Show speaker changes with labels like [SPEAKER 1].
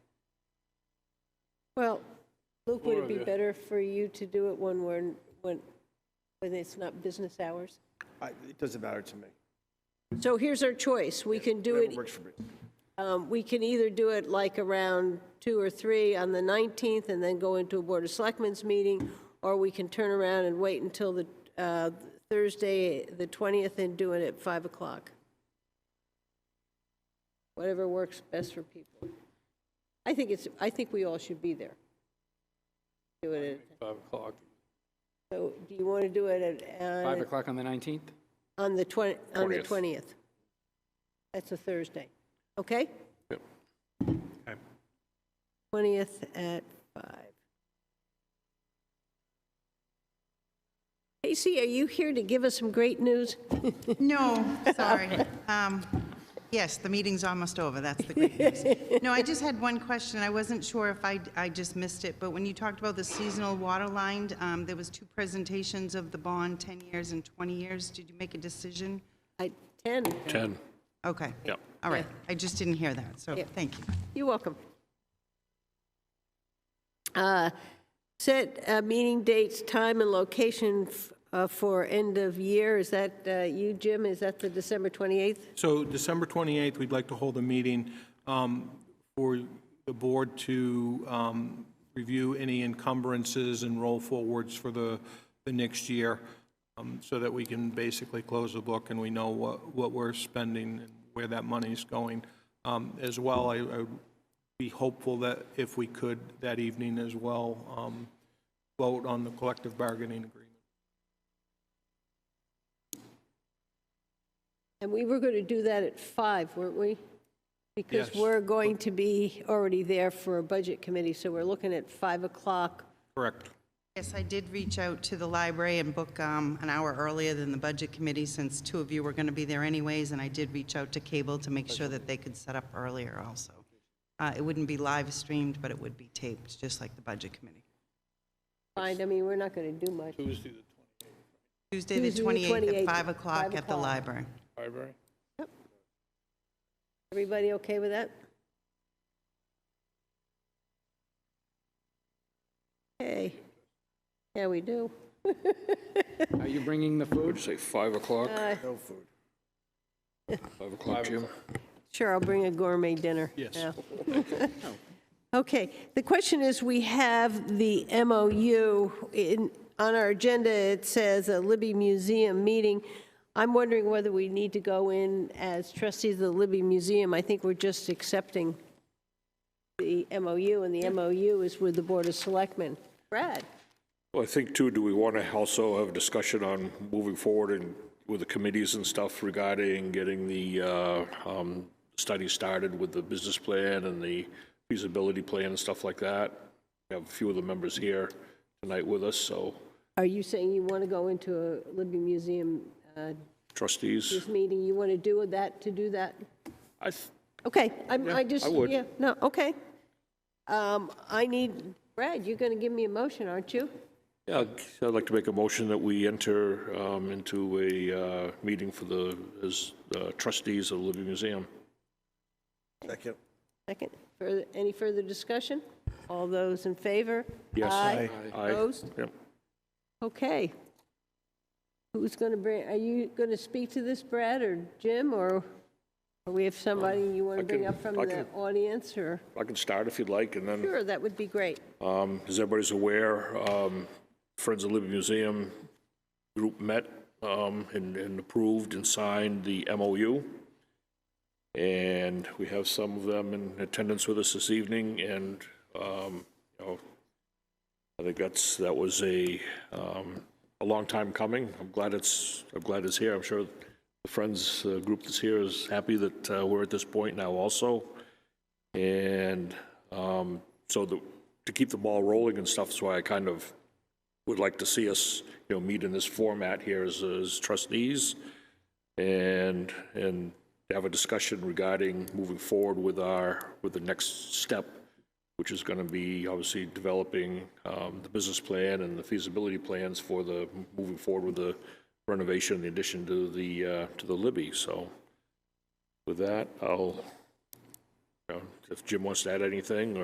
[SPEAKER 1] Well, Luke, would
[SPEAKER 2] Or
[SPEAKER 1] it be
[SPEAKER 2] the-
[SPEAKER 1] better for you to do it when we're, when, when it's not business hours?
[SPEAKER 3] I- It doesn't matter to me.
[SPEAKER 1] So here's our choice. We can do
[SPEAKER 3] Whatever
[SPEAKER 1] it,
[SPEAKER 3] works for me.
[SPEAKER 1] um, we can either do it like around two or three on the 19th and then go into a Board of Selectmen's meeting, or we can turn around and wait until the, uh, Thursday, the 20th, and do it at 5 o'clock. Whatever works best for people. I think it's, I think we all should be there. Do it at.
[SPEAKER 2] 5 o'clock.
[SPEAKER 1] So do you want to do it at,
[SPEAKER 2] 5
[SPEAKER 1] uh,
[SPEAKER 2] o'clock on the 19th?
[SPEAKER 1] on the 20, on the
[SPEAKER 4] 20th.
[SPEAKER 1] 20th? That's a Thursday, okay?
[SPEAKER 4] Yep.
[SPEAKER 1] 20th at 5. Casey, are you here to give us some great news?
[SPEAKER 5] No, sorry. Um, Yes, the meeting's almost over, that's the great news. No, I just had one question, I wasn't sure if I, I just missed it, but when you talked about the seasonal water line, um, there was two presentations of the bond, 10 years and 20 years, did you make a decision?
[SPEAKER 1] At 10?
[SPEAKER 4] 10.
[SPEAKER 5] Okay.
[SPEAKER 4] Yep.
[SPEAKER 5] All right, I just didn't hear that, so,
[SPEAKER 1] Yeah.
[SPEAKER 5] thank you.
[SPEAKER 1] You're welcome. Uh, Set uh, meeting dates, time, and location f- uh, for end of year. Is that uh, you, Jim? Is that the December 28th?
[SPEAKER 6] So December 28th, we'd like to hold a meeting um, for the board to um, review any encumbrances and roll forwards for the, the next year, um, so that we can basically close the book and we know what, what we're spending and where that money's going. Um, As well, I I would be hopeful that if we could, that evening as well, um, vote on the collective bargaining agreement.
[SPEAKER 1] And we were going to do that at five, weren't we? Because
[SPEAKER 6] Yes.
[SPEAKER 1] we're going to be already there for a budget committee, so we're looking at five o'clock.
[SPEAKER 6] Correct.
[SPEAKER 5] Yes, I did reach out to the library and book um, an hour earlier than the Budget Committee, since two of you were going to be there anyways, and I did reach out to cable to make sure that they could set up earlier also. Uh, It wouldn't be live streamed, but it would be taped, just like the Budget Committee.
[SPEAKER 1] Fine, I mean, we're not going to do much.
[SPEAKER 5] Tuesday, the
[SPEAKER 1] Tuesday, the
[SPEAKER 5] 28th
[SPEAKER 1] 28th,
[SPEAKER 5] at 5
[SPEAKER 1] 5
[SPEAKER 5] o'clock at the
[SPEAKER 1] o'clock.
[SPEAKER 5] library.
[SPEAKER 2] Library?
[SPEAKER 1] Everybody okay with that? Okay. Yeah, we do.
[SPEAKER 2] Are you bringing the food?
[SPEAKER 4] Would you say 5 o'clock?
[SPEAKER 1] Uh,
[SPEAKER 4] 5 o'clock, Jim?
[SPEAKER 1] Sure, I'll bring a gourmet dinner.
[SPEAKER 6] Yes.
[SPEAKER 1] Yeah. Okay, the question is, we have the MOU in, on our agenda, it says a Libby Museum meeting. I'm wondering whether we need to go in as trustees of the Libby Museum. I think we're just accepting the MOU, and the MOU is with the Board of Selectmen. Brad?
[SPEAKER 4] Well, I think too, do we want to also have a discussion on moving forward and with the committees and stuff regarding getting the uh, um, study started with the business plan and the feasibility plan and stuff like that? We have a few of the members here tonight with us, so
[SPEAKER 1] Are you saying you want to go into a Libby Museum uh,
[SPEAKER 4] trustees,
[SPEAKER 1] meeting? You want to do that, to do that?
[SPEAKER 4] I, th-
[SPEAKER 1] Okay, I'm, I just,
[SPEAKER 4] I would.
[SPEAKER 1] yeah, no, okay. Um, I need, Brad, you're gonna give me a motion, aren't you?
[SPEAKER 4] yeah, I'd like to make a motion that we enter um, into a uh, meeting for the, as uh, trustees of the Libby Museum.
[SPEAKER 3] Second.
[SPEAKER 1] Second, further, any further discussion? All those in favor?
[SPEAKER 4] Yes.
[SPEAKER 1] Aye.
[SPEAKER 4] Aye.
[SPEAKER 1] Opposed?
[SPEAKER 4] Yep.
[SPEAKER 1] Okay. Who's gonna bring, are you gonna speak to this, Brad, or Jim, or or we have somebody you wanna
[SPEAKER 4] I
[SPEAKER 1] bring
[SPEAKER 4] can-
[SPEAKER 1] up from
[SPEAKER 4] I
[SPEAKER 1] the
[SPEAKER 4] can-
[SPEAKER 1] audience, or?
[SPEAKER 4] I can start if you'd like, and then
[SPEAKER 1] Sure, that would be great.
[SPEAKER 4] Um, As everybody's aware, um, Friends of Libby Museum group met um, and and approved and signed the MOU. And we have some of them in attendance with us this evening, and, um, you know, I think that's, that was a, um, a long time coming. I'm glad it's, I'm glad it's here. I'm sure the Friends uh, group that's here is happy that uh, we're at this point now also. And um, so the, to keep the ball rolling and stuff, so I kind of would like to see us, you know, meet in this format here as, as trustees and, and have a discussion regarding moving forward with our, with the next step, which is going to be obviously developing um, the business plan and the feasibility plans for the, moving forward with the renovation, the addition to the, uh, to the Libby. So with that, I'll, you know, if Jim wants to add anything,